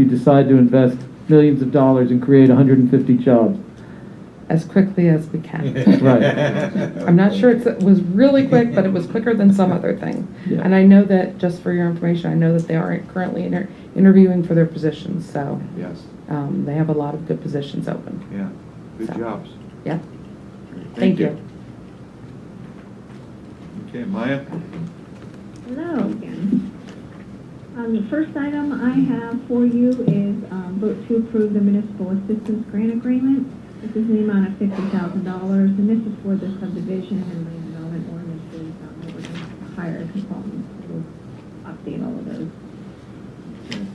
you decide to invest millions of dollars and create 150 jobs. as quickly as we can. Right. I'm not sure it's, it was really quick, but it was quicker than some other thing. Yeah. And I know that, just for your information, I know that they aren't currently inter- interviewing for their positions, so, Yes, um, they have a lot of good positions open. yeah, good So- jobs. Yeah, Thank thank you. Okay, Maya? Hello again. Um, the first item I have for you is, um, vote to approve the municipal assistance grant agreement. This is in the amount of fifty thousand dollars, and this is for the subdivision and land development ordinances. Um, we're going to hire a consultant to update all of those. okay.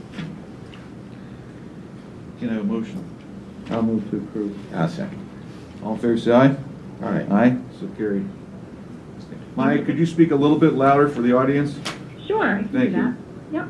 Can I have a motion? I'll move to approve. I'll second. All in favor, say aye. All right. Aye, so carried. Maya, could you speak a little bit louder for the audience? Sure. I can do Thank you. that. Yep.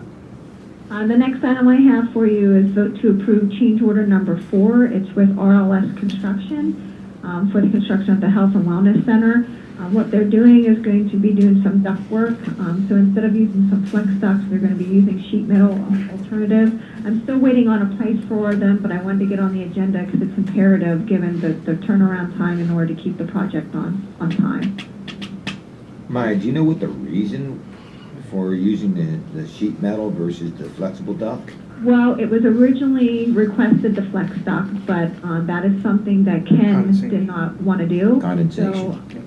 Uh, the next item I have for you is vote to approve change order number four. It's with RLS Construction, um, for the construction of the Health and Wellness Center. Uh, what they're doing is going to be doing some duct work, um, so instead of using some flex ducts, they're gonna be using sheet metal alternative. I'm still waiting on a price for them, but I wanted to get on the agenda because it's imperative, given the, the turnaround time in order to keep the project on, on time. Maya, do you know what the reason for using the, the sheet metal versus the flexible duct? Well, it was originally requested the flex dock, but um, that is something that Ken did not want to do. So, Condensation?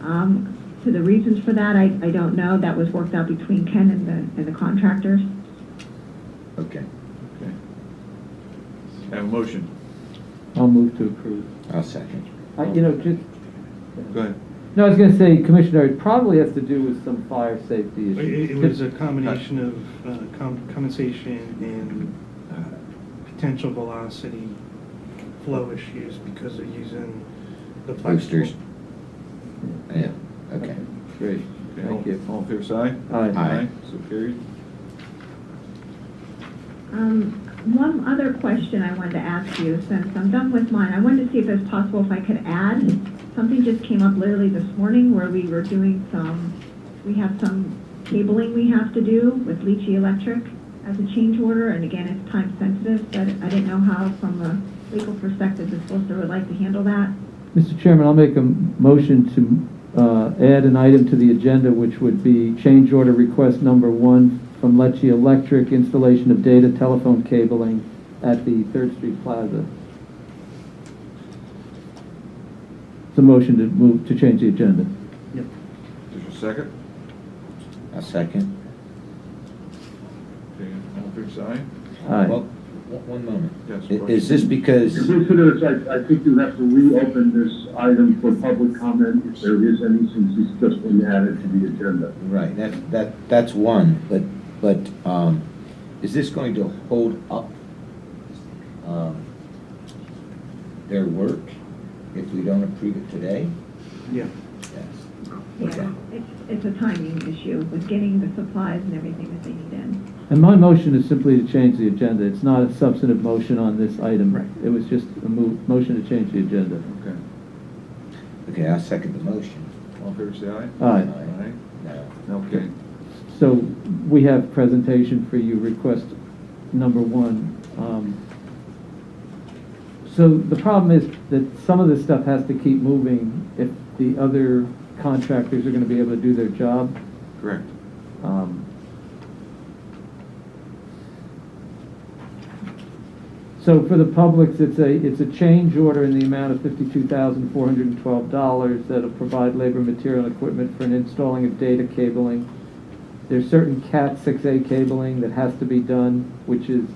um, to the reasons for that, I, I don't know. That was worked out between Ken and the, and the contractors. Okay, Okay. Have a motion. I'll move to approve. I'll second. I, you know, just, Go ahead. no, I was going to say, Commissioner, it probably has to do with some fire safety It- issues. It it was a combination of uh, com- condensation and uh, potential velocity flow issues because of using the Boosters. flexible. Yeah, okay. Great, Okay, all- thank you. All in favor, say aye. Aye. Aye. So carried. Um, one other question I wanted to ask you, since I'm done with mine, I wanted to see if it's possible if I could add, something just came up literally this morning where we were doing some, we have some cabling we have to do with Leachy Electric as a change order, and again, it's time sensitive, but I didn't know how, from a legal perspective, the solicitor would like to handle that. Mr. Chairman, I'll make a m- motion to uh, add an item to the agenda, which would be change order request number one from Lecce Electric, installation of data telephone cabling at the Third Street Plaza. It's a motion to move, to change the agenda. Is there a second? I'll second. Okay, all in favor, say aye. Aye. Well, one one moment. Yes, I- Is this because, Commissioners, I, I think you have to reopen this item for public comment if there is any, since it's just been added to the agenda. right, that, that, that's one, but, but, um, is this going to hold up, um, their work if we don't approve it today? Yeah. Yes. Yeah, it's, it's a timing issue with getting the supplies and everything that they need in. And my motion is simply to change the agenda. It's not a substantive motion on this item. Right. It was just a mo- motion to change the agenda. Okay, Okay, I'll second the motion. all in favor, say aye. Aye. Aye. No. Okay, So we have presentation for you, request number one. Um, So the problem is that some of this stuff has to keep moving if the other contractors are going to be able to do their job. correct. Um, So for the Publix, it's a, it's a change order in the amount of $52,412 that'll provide labor, material, and equipment for an installing of data cabling. There's certain CAT 6A cabling that has to be done, which is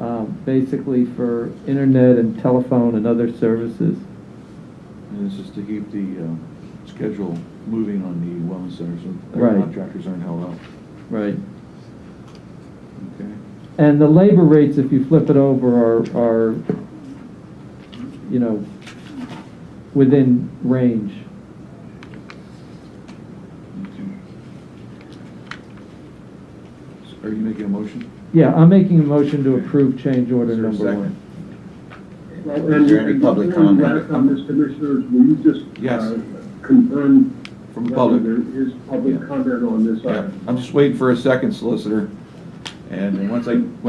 um, basically for internet and telephone and other services. And this is to keep the uh, schedule moving on the wellness center, so Right. their contractors aren't held up. Right. Okay, And the labor rates, if you flip it over, are, are, you know, within range. okay. So Are you making a motion? Yeah, I'm making a motion to approve change order Is there a number second? one. Is there any public Before you comment? act on this, Commissioners, will you just? Yes. uh, Confirm. From the whether public. There is Yeah. public comment on this Yeah, item. I'm just waiting for a second solicitor, and then once I, once